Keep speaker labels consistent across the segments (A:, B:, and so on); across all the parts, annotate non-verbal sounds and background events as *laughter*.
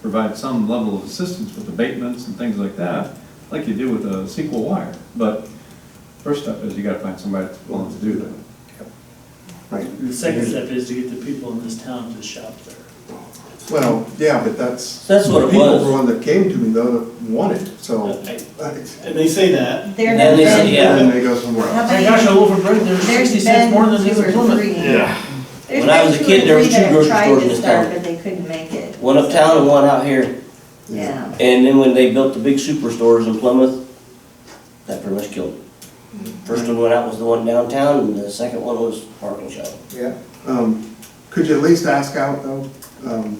A: provide some level of assistance with abatements and things like that, like you do with a SQL wire. But first step is you gotta find somebody that's willing to do that.
B: Right.
C: The second step is to get the people in this town to shop there.
B: Well, yeah, but that's.
D: That's what it was.
B: The people that came to me though wanted, so.
C: I-
B: Right.
C: And they say that.
E: There
D: Then
E: have
D: they said,
E: been-
D: yeah.
B: And then they go somewhere
E: How
B: else.
C: Oh My gosh, I
E: many,
C: loaf of bread, there's
E: there's
C: sixty
E: been
C: cents more than
E: two
C: this
E: or
C: in Plymouth. *laughs*
E: three. There's
D: When I
E: been
D: was a
E: two
D: kid,
E: or
D: there was
E: three
D: two
E: that
D: grocery
E: tried
D: stores
E: to
D: in this
E: start,
D: town.
E: But they couldn't make it.
D: One uptown and one out here.
E: Yeah,
D: And then when they built the big superstores in Plymouth, that pretty much killed it. First one went out was the one downtown, and the second one was parking shop.
B: Yeah. Um, could you at least ask out though? Um,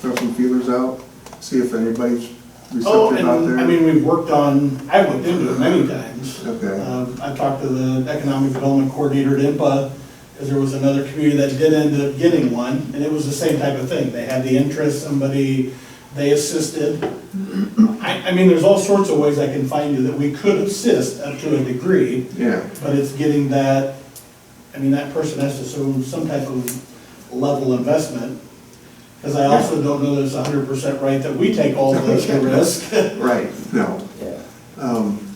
B: throw some feelers out, see if anybody's
F: Oh,
B: receptive out
F: and,
B: there?
F: I mean, we've worked on, I've looked into it many times.
B: Okay.
F: Um, I've talked to the economic development coordinator at IMPA, because there was another community that did end up getting one, and it was the same type of thing. They had the interest, somebody, they assisted. I, I mean, there's all sorts of ways I can find you that we could assist up to a degree,
B: Yeah,
F: but it's getting that, I mean, that person has to assume some type of level investment. Because I also don't know that it's hundred percent right that we take all the risk.
B: right, no.
D: Yeah.
B: Um,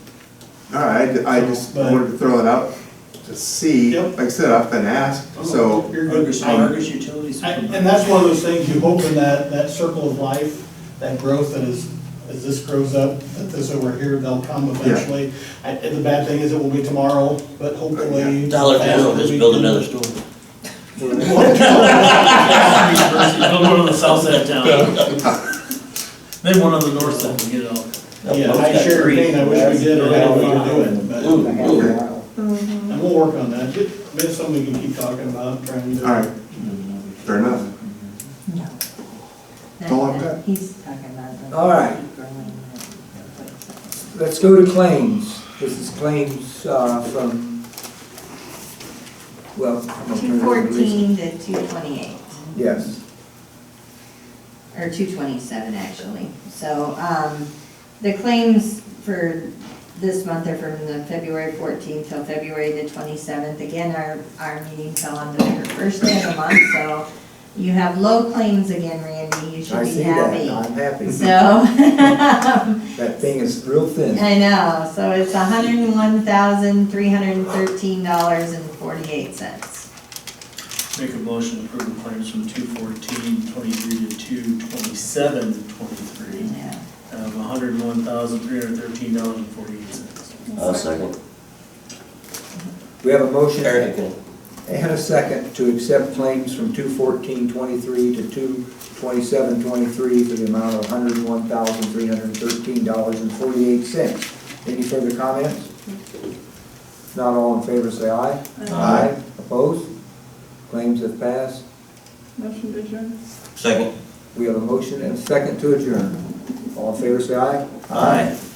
B: all right, I I just
F: But-
B: wanted to throw it out to see.
F: Yep.
B: Like I said, I've been asked, so.
F: *laughs* You're good.
C: Argus, Argus Utilities.
F: I- And that's one of those things, you hope in that, that circle of life, that growth that is, as this grows up, that this over here, they'll come eventually. I- And the bad thing is it will be tomorrow, but hopefully.
D: Dollar General, just build another store.
C: Build one on the south side of town. *laughs* Then one on the north side, we get it all.
F: *laughs* Yeah, I share your pain, I wish we did, or had we could do it, but,
D: Ooh, ooh.
F: and we'll work on that. Just- Maybe something we can keep talking about, trying to.
B: All right, fair enough.
E: no.
B: Don't like that.
E: He's talking about. the- uh,
G: All right. Let's go to claims. This is claims uh, from, well. I'm gonna turn
E: Two
G: it over to Lisa.
E: fourteen to two twenty-eight.
G: Yes.
E: or two twenty-seven actually. So, um, the claims for this month are from the February fourteenth till February the twenty-seventh. Again, our, our meeting fell on the first day of the month, so you have low claims again, Randy, you should
G: I
E: be
G: see that.
E: happy.
G: I'm happy.
E: So, *laughs*
G: That thing is real thin.
E: I know, so it's hundred and one thousand, three hundred and thirteen dollars and forty-eight cents.
C: Make a motion to approve the claims from two fourteen twenty-three to two twenty-seven twenty-three of hundred and one thousand, three hundred and thirteen dollars and forty-eight cents.
D: I'll second.
G: We have a motion
D: Eric
G: and
D: can
G: a second to accept claims from two fourteen twenty-three to two twenty-seven twenty-three for the amount of hundred and one thousand, three hundred and thirteen dollars and forty-eight cents. Any further comments? If Not all in favor, say aye. Aye. Opposed? Claims have passed.
H: Motion to adjourn.
D: Second.
G: We have a motion and a second to adjourn. All in favor, say aye.
D: Aye.